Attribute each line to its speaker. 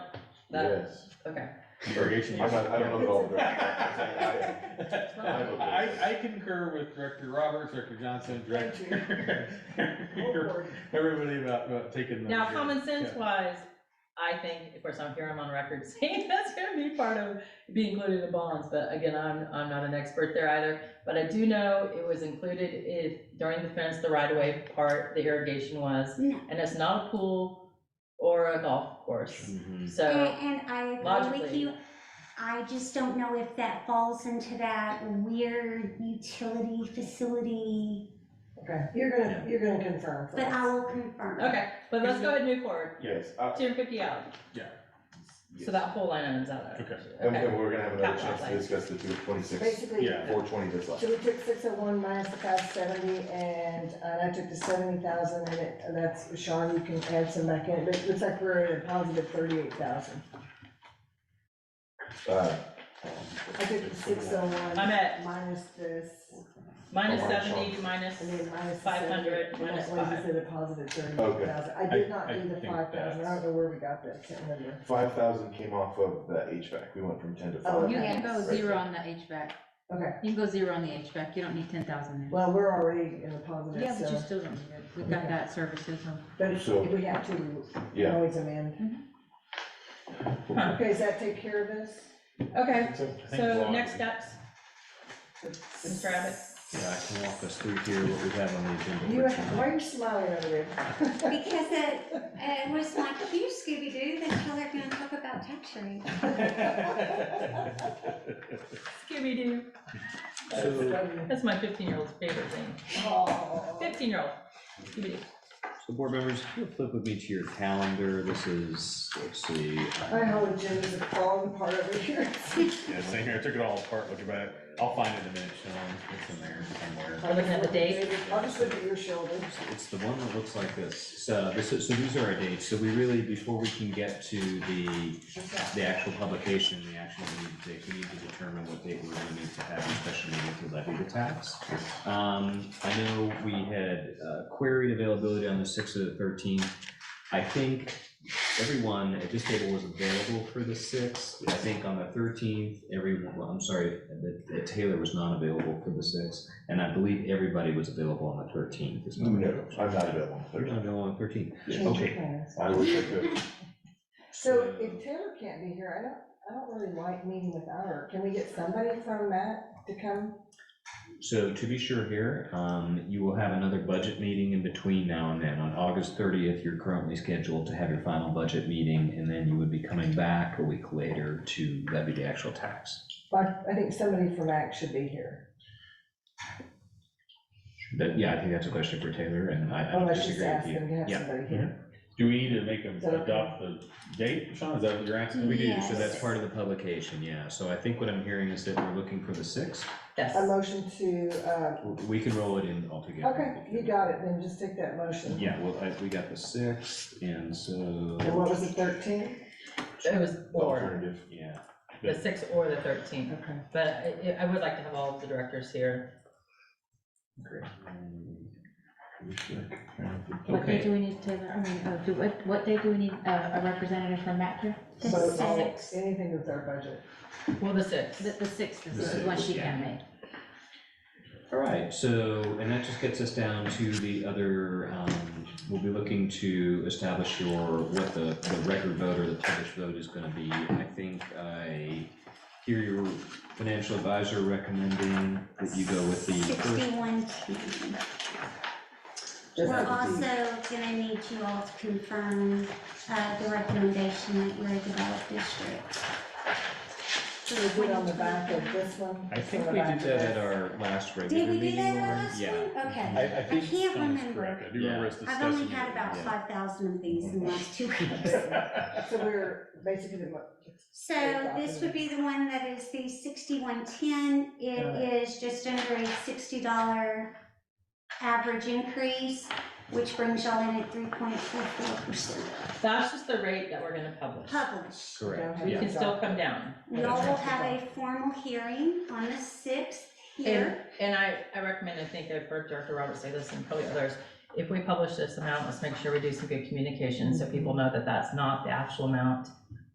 Speaker 1: That,
Speaker 2: Yes.
Speaker 1: okay.
Speaker 2: Irrigation.
Speaker 3: I'm not- I don't know about
Speaker 2: I would-
Speaker 3: I, I concur with Director Roberts, Director Johnson, Director, everybody about, about taking the.
Speaker 1: Now, common sense
Speaker 3: yeah.
Speaker 1: wise, I think, of course, I'm here, I'm on record saying that's gonna be part of, be included in the bonds, but again, I'm, I'm not an expert there either. But I do know it was included if, during the fence, the right of way part, the irrigation was,
Speaker 4: No.
Speaker 1: and it's not a pool or a golf
Speaker 3: Mm-hmm.
Speaker 1: course,
Speaker 2: Mhm.
Speaker 1: so.
Speaker 4: And and I agree with
Speaker 1: Logically.
Speaker 4: you. I just don't know if that falls into that weird utility facility,
Speaker 5: Okay, you're gonna, you're gonna confirm for
Speaker 4: but I
Speaker 5: us.
Speaker 4: will confirm.
Speaker 1: Okay, but let's go ahead and move forward,
Speaker 2: Yes,
Speaker 1: two hundred fifty out,
Speaker 2: Uh, yes.
Speaker 1: so that whole line item's out of it.
Speaker 3: Okay.
Speaker 2: And and we're gonna have another
Speaker 1: Capital
Speaker 2: chance to
Speaker 1: outlay.
Speaker 2: discuss the two twenty-six,
Speaker 5: Basically,
Speaker 3: Yeah.
Speaker 2: four twenty this last.
Speaker 5: so we took six oh one minus the five seventy, and, uh, I took the seventy thousand, and it, and that's, Sean, you can add some back in, but it looks like we're at a positive thirty-eight thousand.
Speaker 2: Uh,
Speaker 5: I took the six oh one.
Speaker 1: I'm at-
Speaker 5: Minus this,
Speaker 1: Minus
Speaker 2: Oh, I'm
Speaker 1: seventy,
Speaker 2: shocked.
Speaker 1: minus,
Speaker 5: and then minus the
Speaker 1: 500,
Speaker 5: 70, and
Speaker 1: minus
Speaker 5: that leaves
Speaker 1: five.
Speaker 5: us at a positive thirty-eight thousand. I
Speaker 3: I-
Speaker 5: did not
Speaker 3: I
Speaker 5: do the
Speaker 3: think
Speaker 5: five thousand, I
Speaker 3: that's-
Speaker 5: don't know where we got that, can't remember.
Speaker 2: five thousand came off of the HVAC, we went from ten to
Speaker 5: Oh,
Speaker 2: five.
Speaker 6: You
Speaker 5: okay.
Speaker 6: can go zero on the HVAC.
Speaker 5: Okay,
Speaker 6: You can go zero on the HVAC. You don't need ten thousand there.
Speaker 5: well, we're already in the positive,
Speaker 6: Yeah, but you
Speaker 5: so,
Speaker 6: still don't need it. We've got that services on.
Speaker 5: but if
Speaker 2: So-
Speaker 5: we have to, we can
Speaker 2: Yeah.
Speaker 5: always amend. Okay, does that take care of this?
Speaker 1: okay,
Speaker 3: I think
Speaker 1: so
Speaker 3: long-
Speaker 1: next steps, Mr. Abbott.
Speaker 7: Yeah, I can walk us through here what we have on the agenda.
Speaker 5: You,
Speaker 7: for
Speaker 5: why
Speaker 7: tonight.
Speaker 5: are you smiling over there?
Speaker 4: Because it, it was like, you Scooby-Doo, that's how they're gonna talk about tax rate.
Speaker 1: Scooby-Doo.
Speaker 7: So,
Speaker 1: That's my fifteen-year-old's favorite thing.
Speaker 5: Oh.
Speaker 1: Fifteen-year-old, Scooby-Doo.
Speaker 7: so board members, if you'll flip with me to your calendar, this is, let's see. uh,
Speaker 5: My whole agenda's falling apart over here.
Speaker 3: Yeah, same here, I took it all apart, looked about it, I'll find it in a minute, Sean, it's in there somewhere.
Speaker 1: Are we looking at the date?
Speaker 5: I'll just look at your shoulder.
Speaker 7: It's the one that looks like this. So this is, so these are our dates. So we really, before we can get to the, the actual publication, the action that we need to take, we need to determine what date we're gonna need to have a special meeting to levy the tax. Um, I know we had uh, queried availability on the sixth or the thirteenth. I think everyone at this table was available for the sixth. I think on the thirteenth, everyone, well, I'm sorry, that- that Taylor was not available for the sixth. And I believe everybody was available on the thirteenth, is my
Speaker 2: No, Mm-hmm. I'm not available.
Speaker 7: You're not available on thirteenth.
Speaker 5: Change your
Speaker 7: Okay.
Speaker 5: plans.
Speaker 2: I wish I could,
Speaker 5: So if Taylor can't be here, I don't, I don't really like meeting without her. Can we get somebody from Matt to come?
Speaker 7: So to be sure here, um, you will have another budget meeting in between now and then. On August thirtieth, you're currently scheduled to have your final budget meeting, and then you would be coming back a week later to levy the actual tax.
Speaker 5: But I think somebody from Mac should be here.
Speaker 7: But yeah, I think that's a question for Taylor, and I I don't
Speaker 5: Unless she's
Speaker 7: disagree with you.
Speaker 5: asking to have
Speaker 7: Yeah. Mm-hmm.
Speaker 5: somebody here.
Speaker 3: Do we need to make them
Speaker 5: Is that okay?
Speaker 3: adopt the date, Sean, is that what you're asking?
Speaker 7: We do, so
Speaker 4: Yes.
Speaker 7: that's part of the publication, yeah. So I think what I'm hearing is that we're looking for the sixth.
Speaker 5: A
Speaker 1: Yes.
Speaker 5: motion to, uh,
Speaker 7: We can roll it in altogether.
Speaker 5: okay, you got it, then just take that motion.
Speaker 7: Yeah, well, I, we got the sixth, and so,
Speaker 5: And what was it, thirteen?
Speaker 1: It was or,
Speaker 2: alternative.
Speaker 7: yeah.
Speaker 1: the sixth or the thirteenth,
Speaker 5: Okay.
Speaker 1: but I, I would like to have all of the directors here.
Speaker 7: Great.
Speaker 6: What day
Speaker 7: Okay.
Speaker 6: do we need Taylor? I mean, uh, do, what, what day do we need uh, a representative from Matt here?
Speaker 4: The
Speaker 5: So, all-
Speaker 4: six.
Speaker 5: anything with our budget.
Speaker 1: Well, the sixth.
Speaker 6: The, the sixth
Speaker 7: The
Speaker 6: is the one
Speaker 7: sixth,
Speaker 6: she
Speaker 7: yeah.
Speaker 6: can make.
Speaker 7: All right, so, and that just gets us down to the other, um, we'll be looking to establish your, what the, the record vote or the published vote is gonna be. I think I hear your financial advisor recommending that you go with the first.
Speaker 4: Sixty-one ten.
Speaker 5: Just
Speaker 4: We're
Speaker 5: to be-
Speaker 4: also gonna need you all to confirm, uh, the recommendation that you're a developed district.
Speaker 5: Should we get on the back of this one?
Speaker 7: I think
Speaker 5: On
Speaker 7: we
Speaker 5: the
Speaker 7: did
Speaker 5: back
Speaker 7: that at
Speaker 5: of
Speaker 7: our last
Speaker 4: Did
Speaker 7: regular
Speaker 4: we do
Speaker 7: meeting.
Speaker 4: that
Speaker 7: Lauren.
Speaker 4: last
Speaker 7: Yeah.
Speaker 4: one? Okay.
Speaker 3: I, I think
Speaker 4: I can't
Speaker 3: Sean is
Speaker 4: remember.
Speaker 3: correct, I do remember us
Speaker 4: I've
Speaker 3: discussing.
Speaker 4: only
Speaker 3: it.
Speaker 4: had about
Speaker 3: Yeah.
Speaker 4: five thousand of these in the last two weeks.
Speaker 5: this. So we're basically, the mo-
Speaker 4: So this would be the one that is the sixty-one ten. It is just under a sixty dollar average increase, which brings y'all in at three point four four percent.
Speaker 1: That's just the rate that we're gonna publish.
Speaker 4: Publish.
Speaker 7: Correct,
Speaker 1: We
Speaker 7: yeah.
Speaker 1: can still come down.
Speaker 4: Y'all will have a formal hearing on the sixth
Speaker 1: And,
Speaker 4: here.
Speaker 1: and I, I recommend, I think I've heard Director Roberts say this and probably others, if we publish this amount, let's make sure we do some good communication so people know that that's not the actual amount